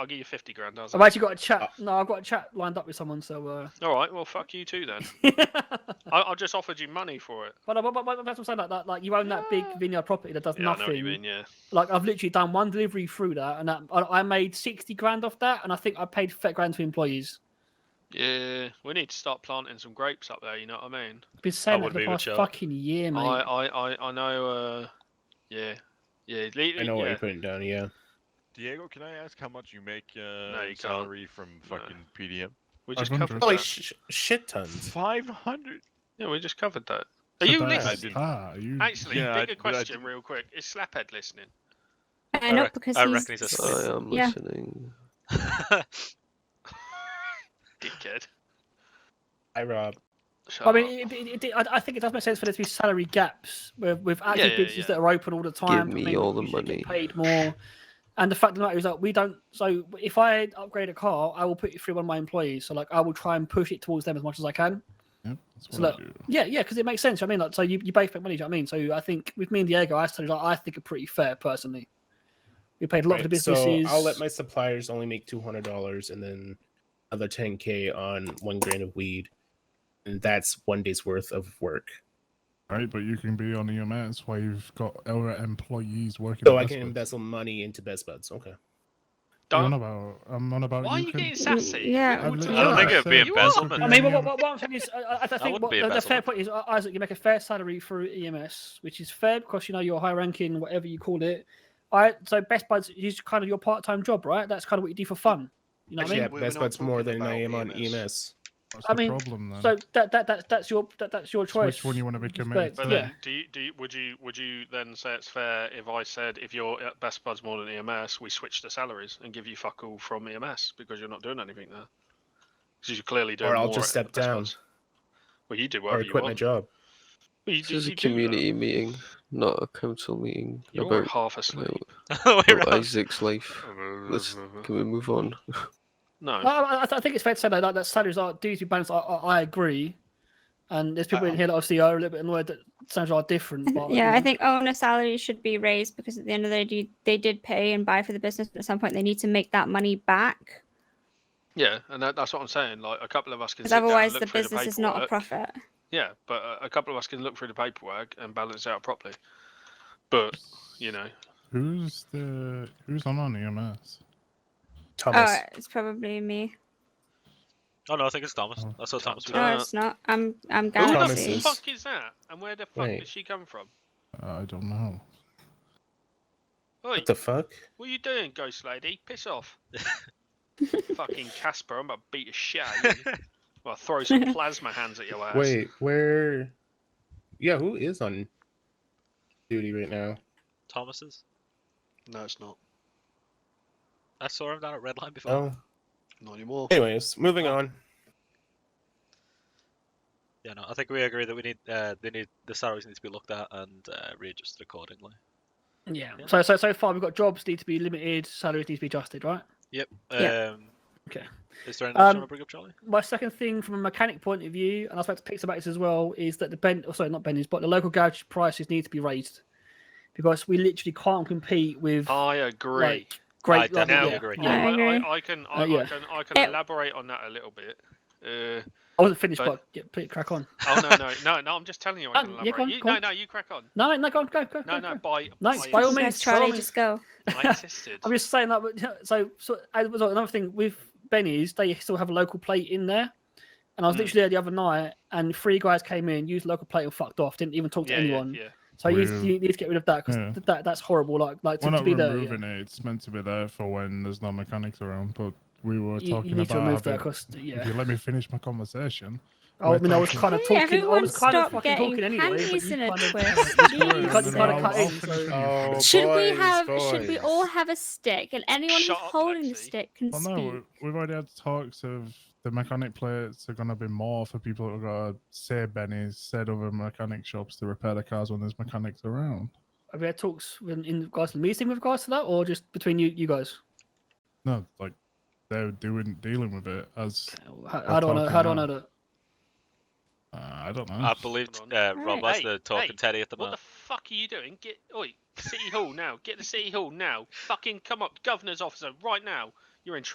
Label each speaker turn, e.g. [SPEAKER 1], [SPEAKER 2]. [SPEAKER 1] I'll give you fifty grand. How's
[SPEAKER 2] I've actually got a
[SPEAKER 1] Uh,
[SPEAKER 2] chat. No, I've got a chat lined up with someone. So, uh...
[SPEAKER 1] that? All right. Well, fuck you too then.
[SPEAKER 2] but,
[SPEAKER 1] I, I just offered you money for it.
[SPEAKER 2] I- but, but, but that's what I'm saying. Like that, like you own that big vineyard property that does
[SPEAKER 1] Yeah,
[SPEAKER 2] nothing.
[SPEAKER 1] I know what you mean. Yeah.
[SPEAKER 2] Like I've literally done one delivery through that, and that, I, I made sixty grand off that, and I think I paid thirty grand to employees.
[SPEAKER 1] Yeah. We need to start planting some grapes up there. You know what I mean?
[SPEAKER 2] I've been saying
[SPEAKER 3] I
[SPEAKER 2] that for
[SPEAKER 3] would
[SPEAKER 2] the
[SPEAKER 3] be with
[SPEAKER 2] past
[SPEAKER 3] you.
[SPEAKER 2] fucking year,
[SPEAKER 1] I,
[SPEAKER 2] mate.
[SPEAKER 1] I, I, I know. Uh, yeah. Yeah. le-
[SPEAKER 3] I know what
[SPEAKER 1] yeah.
[SPEAKER 3] you're putting down. Yeah.
[SPEAKER 4] Diego, can I ask how much you make uh,
[SPEAKER 1] you can't.
[SPEAKER 4] salary from fucking PDM?
[SPEAKER 1] We
[SPEAKER 5] I
[SPEAKER 1] just
[SPEAKER 5] was
[SPEAKER 1] covered
[SPEAKER 5] wondering.
[SPEAKER 1] that.
[SPEAKER 3] Holy Oh, sh- shit tons.
[SPEAKER 4] Five hundred.
[SPEAKER 1] yeah, we just covered that. Are you
[SPEAKER 5] Tobias,
[SPEAKER 1] listening?
[SPEAKER 4] listening?
[SPEAKER 5] Ah, you.
[SPEAKER 1] Actually,
[SPEAKER 4] Yeah, I-
[SPEAKER 1] bigger
[SPEAKER 4] but I
[SPEAKER 1] question,
[SPEAKER 4] didn't-
[SPEAKER 1] real quick. Is Slaphead listening?
[SPEAKER 6] I know
[SPEAKER 3] rec-
[SPEAKER 6] because
[SPEAKER 3] I
[SPEAKER 6] he's.
[SPEAKER 3] reckon he's a
[SPEAKER 7] I
[SPEAKER 3] Smith.
[SPEAKER 7] am
[SPEAKER 6] Yeah.
[SPEAKER 7] listening.
[SPEAKER 1] Dickhead.
[SPEAKER 3] Hi, Rob.
[SPEAKER 1] Shut
[SPEAKER 2] I
[SPEAKER 1] up.
[SPEAKER 2] mean, it, it, it, I I think it does make sense for there to be salary gaps with, with active
[SPEAKER 1] yeah,
[SPEAKER 2] businesses
[SPEAKER 1] yeah.
[SPEAKER 2] that are open all the time.
[SPEAKER 7] me
[SPEAKER 2] maybe
[SPEAKER 7] all the
[SPEAKER 2] you should get
[SPEAKER 7] money.
[SPEAKER 2] Paid more. And the fact of the matter is that we don't. So if I upgrade a car, I will put it through one of my employees. So like, I will try and push it towards them as much as I can.
[SPEAKER 5] Yep, that's
[SPEAKER 2] So
[SPEAKER 5] what I
[SPEAKER 2] look-
[SPEAKER 5] do.
[SPEAKER 2] Yeah, yeah, because it makes sense. you know what I mean, like, so you, you both make money. do you know what I mean, so I think with me and Diego, I started. Like, I think are pretty fair personally. We paid a lot of the
[SPEAKER 3] Right,
[SPEAKER 2] businesses.
[SPEAKER 3] So I'll let my suppliers only make two hundred dollars, and then another ten k on one grain of weed, and that's one day's worth of work.
[SPEAKER 5] Right, but you can be on EMS while you've got our employees working.
[SPEAKER 3] So
[SPEAKER 5] at
[SPEAKER 3] I
[SPEAKER 5] Best
[SPEAKER 3] can
[SPEAKER 5] Buy.
[SPEAKER 3] embezzle money into Best Buds. Okay.
[SPEAKER 5] I'm
[SPEAKER 1] Don't-
[SPEAKER 5] on about. I'm on about.
[SPEAKER 1] Why are
[SPEAKER 5] you
[SPEAKER 1] you
[SPEAKER 5] can-
[SPEAKER 1] getting sassy?
[SPEAKER 6] Yeah.
[SPEAKER 5] I
[SPEAKER 1] All the time.
[SPEAKER 5] literally
[SPEAKER 3] I don't think
[SPEAKER 5] said
[SPEAKER 3] it would be
[SPEAKER 5] you are
[SPEAKER 1] embezzlement.
[SPEAKER 2] I
[SPEAKER 5] working
[SPEAKER 2] mean, what,
[SPEAKER 5] at
[SPEAKER 2] what, what, what I'm saying is, I- I, I think
[SPEAKER 7] wouldn't
[SPEAKER 2] what,
[SPEAKER 7] be
[SPEAKER 2] the, the fair
[SPEAKER 7] embezzlement.
[SPEAKER 2] point is, uh, Isaac, you make a fair salary through EMS, which is fair because you know you're high ranking, whatever you call it. I so Best Buds is kind of your part time job, right? That's kind of what you do for fun. You know what I
[SPEAKER 3] Actually,
[SPEAKER 2] mean?
[SPEAKER 3] yeah,
[SPEAKER 4] We're
[SPEAKER 3] Best
[SPEAKER 4] not
[SPEAKER 3] Buds more
[SPEAKER 4] talking
[SPEAKER 3] than I am
[SPEAKER 4] about
[SPEAKER 1] E
[SPEAKER 3] on E
[SPEAKER 4] EMS.
[SPEAKER 3] EMS.
[SPEAKER 5] What's
[SPEAKER 2] I
[SPEAKER 5] the
[SPEAKER 2] mean,
[SPEAKER 5] problem then?
[SPEAKER 2] So that that that's that's your that, that's your choice.
[SPEAKER 5] which one you want to be
[SPEAKER 2] Respect.
[SPEAKER 5] committed
[SPEAKER 1] But
[SPEAKER 5] to?
[SPEAKER 1] then,
[SPEAKER 2] Yeah.
[SPEAKER 1] do you, do you, would you would you then say it's fair if I said if you're at Best Buds more than EMS, we switch the salaries and give you fuck all from EMS because you're not doing anything there? Because you're clearly doing
[SPEAKER 3] Or I'll
[SPEAKER 1] more
[SPEAKER 3] just
[SPEAKER 1] at
[SPEAKER 3] step
[SPEAKER 1] Best
[SPEAKER 3] down.
[SPEAKER 1] Buds. Well, you do
[SPEAKER 3] Or
[SPEAKER 1] whatever
[SPEAKER 3] I
[SPEAKER 1] you
[SPEAKER 3] quit my
[SPEAKER 1] want.
[SPEAKER 3] job.
[SPEAKER 1] Well, you
[SPEAKER 7] This
[SPEAKER 1] do-
[SPEAKER 7] is a
[SPEAKER 1] you do that.
[SPEAKER 7] community meeting, not a council meeting
[SPEAKER 1] You're
[SPEAKER 7] about
[SPEAKER 1] half asleep.
[SPEAKER 7] about Isaac's life. Let's can we move on?
[SPEAKER 1] No.
[SPEAKER 2] I, I- I, th- I think it's fair to say that, that, that salaries are due to be balanced. I, I, I agree, and there's people in here that obviously are a little bit annoyed that salaries are different. But,
[SPEAKER 6] Yeah,
[SPEAKER 2] you
[SPEAKER 6] I
[SPEAKER 2] know.
[SPEAKER 6] think oh, owner salaries should be raised because at the end of the day, do- they did pay and buy for the business, but at some point they need to make that money back
[SPEAKER 1] Yeah, and that, that's what I'm saying. Like a couple of us can.
[SPEAKER 6] because
[SPEAKER 1] sit down and
[SPEAKER 6] otherwise
[SPEAKER 1] look
[SPEAKER 6] the
[SPEAKER 1] through
[SPEAKER 6] business is not a
[SPEAKER 1] paperwork.
[SPEAKER 6] profit.
[SPEAKER 1] Yeah, but uh, a couple of us can look through the paperwork and balance it out properly. But you know,
[SPEAKER 5] Who's the who's on on EMS?
[SPEAKER 3] Thomas.
[SPEAKER 6] Oh, it's probably me.
[SPEAKER 3] oh no, I think it's Thomas.
[SPEAKER 5] Oh.
[SPEAKER 3] I saw Thomas.
[SPEAKER 1] Uh,
[SPEAKER 6] No, it's not. I'm I'm
[SPEAKER 1] who
[SPEAKER 3] Thomas
[SPEAKER 6] Galaxy.
[SPEAKER 1] the
[SPEAKER 3] is-
[SPEAKER 1] fuck is that? And where the fuck
[SPEAKER 3] Wait.
[SPEAKER 1] did she come from?
[SPEAKER 5] Uh, I don't know.
[SPEAKER 1] Oi,
[SPEAKER 3] What the fuck?
[SPEAKER 1] what are you doing, ghost lady? Piss off! Fucking Casper, I'm about to beat a shit out of you. Well, throw some plasma hands at your ass.
[SPEAKER 3] Wait, where? Yeah, who is on duty right now?
[SPEAKER 8] Thomas's.
[SPEAKER 1] No, it's not.
[SPEAKER 8] I saw him down at Red Line before.
[SPEAKER 3] Oh.
[SPEAKER 1] Not anymore.
[SPEAKER 3] Anyways, moving on.
[SPEAKER 8] Yeah, no, I think we agree that we need uh, they need the salaries need to be looked at and uh, readjusted accordingly.
[SPEAKER 2] Yeah.
[SPEAKER 8] Yeah.
[SPEAKER 2] So so so far we've got jobs need to be limited, salaries need to be adjusted, right?
[SPEAKER 8] Yep.
[SPEAKER 6] Yeah.
[SPEAKER 8] Um,
[SPEAKER 2] Okay.
[SPEAKER 8] Is there anything
[SPEAKER 2] Um,
[SPEAKER 8] else you want to bring up, Charlie?
[SPEAKER 2] My second thing from a mechanic point of view, and I expect to Pixar about this as well, is that the ben oh, sorry, not Benny's, but the local garage prices need to be raised. Because we literally can't compete with
[SPEAKER 1] I agree.
[SPEAKER 2] like great
[SPEAKER 8] I
[SPEAKER 2] like,
[SPEAKER 8] definitely
[SPEAKER 2] yeah,
[SPEAKER 8] agree.
[SPEAKER 2] yeah.
[SPEAKER 1] Yeah,
[SPEAKER 6] I
[SPEAKER 1] I,
[SPEAKER 6] agree.
[SPEAKER 1] I, I can, I,
[SPEAKER 2] Uh, yeah.
[SPEAKER 1] I can, I can
[SPEAKER 6] It-
[SPEAKER 1] elaborate on that a little bit. Uh,
[SPEAKER 2] I wasn't finished,
[SPEAKER 1] But-
[SPEAKER 2] but, yeah, please crack on.
[SPEAKER 1] oh no, no, no, no! I'm just telling you, I
[SPEAKER 2] Um,
[SPEAKER 1] can
[SPEAKER 2] yeah,
[SPEAKER 1] elaborate.
[SPEAKER 2] go on,
[SPEAKER 1] you,
[SPEAKER 2] go
[SPEAKER 1] no,
[SPEAKER 2] on.
[SPEAKER 1] no, you crack on.
[SPEAKER 2] No, no, no, go on, go, go,
[SPEAKER 1] No,
[SPEAKER 2] go,
[SPEAKER 1] no,
[SPEAKER 2] go.
[SPEAKER 1] by,
[SPEAKER 2] No,
[SPEAKER 1] by,
[SPEAKER 2] by all means,
[SPEAKER 6] Yes,
[SPEAKER 2] by all
[SPEAKER 6] Charlie,
[SPEAKER 2] means.
[SPEAKER 6] just go.
[SPEAKER 1] I insisted.
[SPEAKER 2] I'm just saying that. But, so, so as well, another thing with Benny's, they still have a local plate in there. And I was
[SPEAKER 1] Mm.
[SPEAKER 2] literally there the other night, and three guys came in, used local plate, and fucked off. Didn't even talk to
[SPEAKER 1] yeah, yeah,
[SPEAKER 2] anyone.
[SPEAKER 1] yeah.
[SPEAKER 2] So you,
[SPEAKER 5] Weird.
[SPEAKER 2] you need to get rid of that because
[SPEAKER 5] Yeah.
[SPEAKER 2] that that's horrible. Like like to,
[SPEAKER 5] We're
[SPEAKER 2] to
[SPEAKER 5] not
[SPEAKER 2] be there. yeah.
[SPEAKER 5] removing it. It's meant to be there for when there's no mechanics around. But we were
[SPEAKER 2] You, you
[SPEAKER 5] talking
[SPEAKER 2] need to
[SPEAKER 5] about.
[SPEAKER 2] remove that
[SPEAKER 5] having-
[SPEAKER 2] because
[SPEAKER 5] If
[SPEAKER 2] yeah.
[SPEAKER 5] you let me finish my conversation.
[SPEAKER 2] I
[SPEAKER 5] we're
[SPEAKER 2] mean, I was
[SPEAKER 5] talking-
[SPEAKER 2] kind of
[SPEAKER 6] Hey,
[SPEAKER 2] talking. I
[SPEAKER 6] everyone
[SPEAKER 2] was kind of
[SPEAKER 6] stop
[SPEAKER 2] fucking
[SPEAKER 6] getting
[SPEAKER 2] talking anyway. but
[SPEAKER 6] panties
[SPEAKER 2] you
[SPEAKER 6] in a
[SPEAKER 2] kind of-
[SPEAKER 6] twist.
[SPEAKER 2] You
[SPEAKER 6] Jeez.
[SPEAKER 2] kind of, kind of cut
[SPEAKER 5] I'll
[SPEAKER 2] in.
[SPEAKER 5] finish
[SPEAKER 2] So,
[SPEAKER 5] my
[SPEAKER 3] Oh,
[SPEAKER 6] Should we
[SPEAKER 3] boys,
[SPEAKER 6] have? Should we
[SPEAKER 3] boys.
[SPEAKER 6] all have a stick? And anyone
[SPEAKER 1] Shut
[SPEAKER 6] who's
[SPEAKER 1] up,
[SPEAKER 6] holding the
[SPEAKER 1] Lexi.
[SPEAKER 6] stick can
[SPEAKER 5] Well,
[SPEAKER 6] speak.
[SPEAKER 5] no, we- we've already had talks of the mechanic plates are going to be more for people that are going to say Benny's, said other mechanic shops to repair the cars when there's mechanics around.
[SPEAKER 2] have we had talks in, in regards to the meeting with regards to that, or just between you you guys?
[SPEAKER 5] No, like they're doing dealing with it as
[SPEAKER 2] How, how do I know? How do I know that?
[SPEAKER 5] uh, I don't know.
[SPEAKER 8] I believe
[SPEAKER 1] on.
[SPEAKER 8] uh,
[SPEAKER 6] Right.
[SPEAKER 8] Rob that's
[SPEAKER 1] Hey,
[SPEAKER 8] the talking
[SPEAKER 1] hey,
[SPEAKER 8] Teddy at the
[SPEAKER 1] What the
[SPEAKER 8] moment.
[SPEAKER 1] fuck are you doing? Get, oi, City Hall now. Get to City Hall now. Fucking come up, Governor's officer, right now. You're in